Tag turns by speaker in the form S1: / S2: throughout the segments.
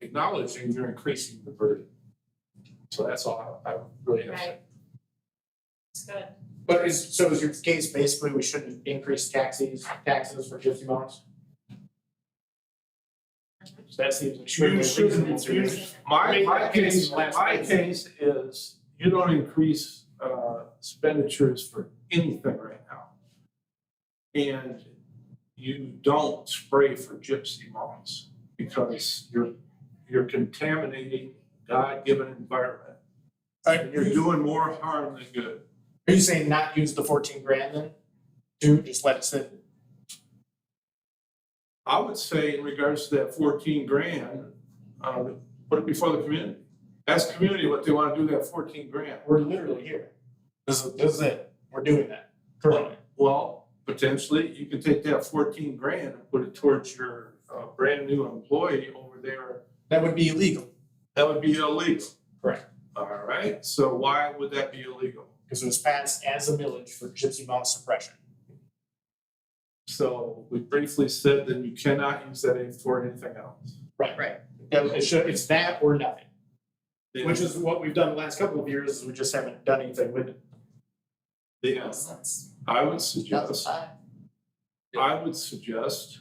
S1: acknowledging you're increasing the burden. So that's all I I really have. to say.
S2: Right. It's good.
S3: But is, so is your case basically we shouldn't increase taxes, taxes for gypsy moms? So that seems extremely
S1: You shouldn't,
S3: reasonable to me.
S1: you My, my case, my
S3: Last case.
S1: case is you don't increase uh, expenditures for anything right now. And you don't spray for gypsy moths because you're, you're contaminating God-given environment.
S3: Alright,
S1: And you're doing more harm than good.
S3: Are you saying not use the fourteen grand then? Do, just let it sit?
S1: I would say in regards to that fourteen grand, uh, put it before the community. Ask the community what they want to do with that fourteen grand.
S3: We're literally here. This is, this is it. We're doing that currently.
S1: Well, potentially, you can take that fourteen grand and put it towards your uh brand new employee over there.
S3: That would be illegal
S1: That would be illegal.
S3: Correct.
S1: All right, so why would that be illegal?
S3: because it was passed as a millage for gypsy mom suppression.
S1: So we briefly said that you cannot use that aid for anything else.
S3: Right. Right. It should, it's that or nothing.
S1: The-
S3: Which is what we've done the last couple of years, is we just haven't done anything with it.
S1: The, uh, I would suggest, I would suggest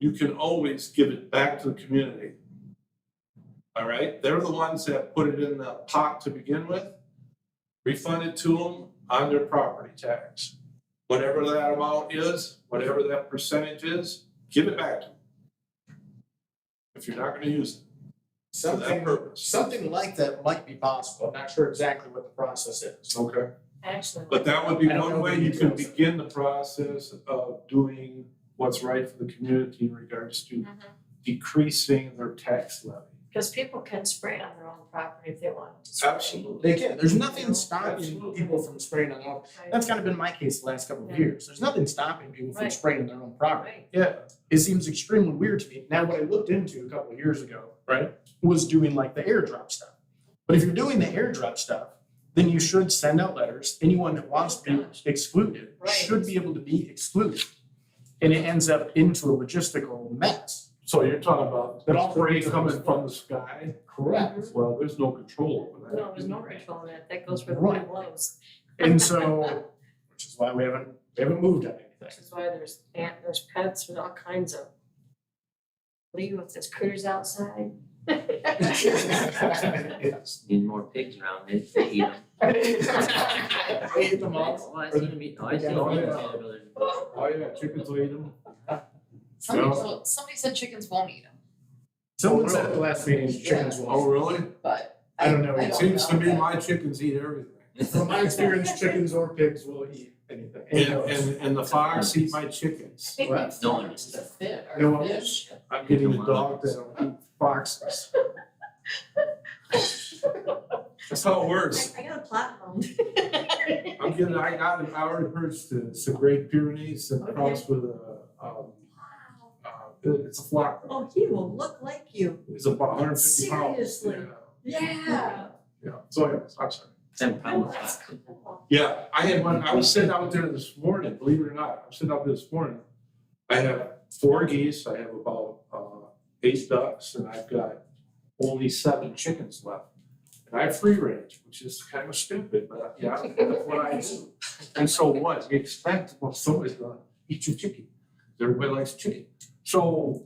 S1: you can always give it back to the community. All right, they're the ones that put it in the pot to begin with. Refund it to them on their property tax. Whatever that amount is, whatever that percentage is, give it back to them. If you're not gonna use it for that
S3: Something,
S1: purpose.
S3: something like that might be possible. I'm not sure exactly what the process is.
S1: Okay.
S2: Actually.
S1: But that would be
S3: I don't know
S1: one way
S3: the
S1: you can
S3: details.
S1: begin the process of doing what's right for the community in regards to decreasing their tax levy.
S2: Because Mm-hmm. people can spray on their own property if they want to.
S1: Absolutely.
S3: They can, there's nothing stopping
S1: Absolutely.
S3: people from spraying on their own.
S2: Right.
S3: That's kind of been my case the last couple of
S2: Yeah.
S3: years. There's nothing stopping people from
S2: Right.
S3: spraying on their own property.
S2: Right.
S1: Yeah,
S3: It seems extremely weird to me. Now, what I looked into a couple of years ago, right, was doing like the airdrop stuff. But if you're doing the airdrop stuff, then you should send out letters. Anyone that wants to be excluded
S2: Right.
S3: should be able to be excluded. And it ends up into a logistical mess.
S1: so you're talking about
S3: But all
S1: spray
S3: three of
S1: coming
S3: those-
S1: from the sky?
S3: Correct.
S1: Well, there's no control over that.
S2: No, Mm-hmm. there's no control in that. That goes where the
S3: Right.
S2: wind blows,
S3: And so, which is why we haven't, we haven't moved on
S2: which
S3: anything.
S2: is why there's ant, there's pets with all kinds of. Leave with this critters outside.
S3: Yes.
S4: Need more pigs around it to eat 'em.
S3: They hit them all.
S4: Well, I seen 'em eat- oh, I seen 'em eat each other, brother.
S1: Oh, yeah, chickens will eat them.
S5: Somebody
S1: Yeah.
S5: told, somebody said chickens won't eat them,
S3: Someone said at the last meeting, chickens will.
S1: Oh, really?
S5: but
S3: I don't know.
S5: I
S3: It
S5: don't
S1: Seems to
S5: know
S1: me
S5: that.
S1: my chickens eat everything.
S3: From my experience, chickens or pigs will eat anything.
S1: And, and, and the fox eat my chickens.
S3: What?
S4: No one
S5: It's the fit
S3: No
S5: or
S3: one-
S5: fish.
S1: I'm getting a dog that'll eat foxes. That's how it works.
S2: I, I got a platinum.
S1: I'm getting, I got an hour herds to, it's the Great Pyrenees and cross with a, um, uh, it's a flock.
S2: Oh, he will look like you.
S1: It's about hundred and fifty pounds.
S2: Seriously?
S1: Yeah.
S2: Yeah.
S1: Yeah, so anyways, I'm sorry.
S4: Them probably
S2: That's
S4: not.
S2: cool.
S1: Yeah, I had one, I was sitting out there this morning, believe it or not, I'm sitting out there this morning. I have four geese, I have about uh eight ducks, and I've got only seven chickens left. And I free range, which is kind of stupid, but yeah, that's what I do. And so what, you expect, well, somebody's gonna eat your chicken, everybody likes chicken. So,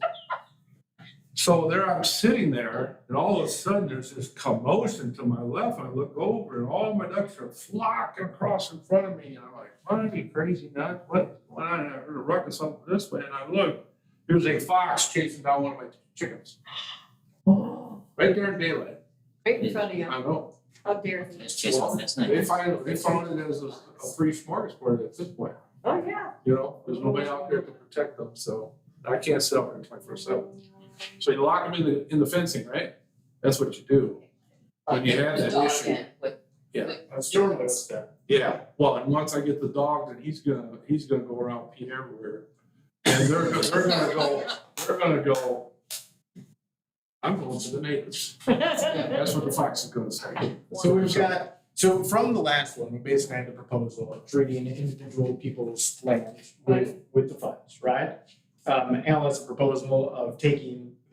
S1: so there I'm sitting there, and all of a sudden, there's this commotion to my left, I look over, and all my ducks are flocking across in front of me, and I'm like, what, you crazy nut, what, what, I heard a ruckus up this way, and I look, there's a fox chasing down one of my chickens, right there in daylight,
S2: Right in front of you,
S1: I know.
S2: how dare you.
S4: Let's chase one last night.
S1: They find, they found it as a a free smorgasbord at this point.
S2: Oh, yeah.
S1: You know, there's nobody out there to protect them, so I can't sit out here twenty-four seven. So you lock them in the, in the fencing, right? That's what you do. When you have
S5: The
S1: that
S5: dog
S1: issue.
S5: in with-
S1: Yeah.
S5: with
S3: That's normally what's done.
S1: Yeah, well, and once I get the dog, then he's gonna, he's gonna go around pee everywhere. And they're, go- they're gonna go, they're gonna go, I'm going to the neighbors. That's what the fox is gonna say.
S3: So we've got, so from the last one, we basically had the proposal of treating individual people's land with, with the funds, right? Um, Alan has a proposal of taking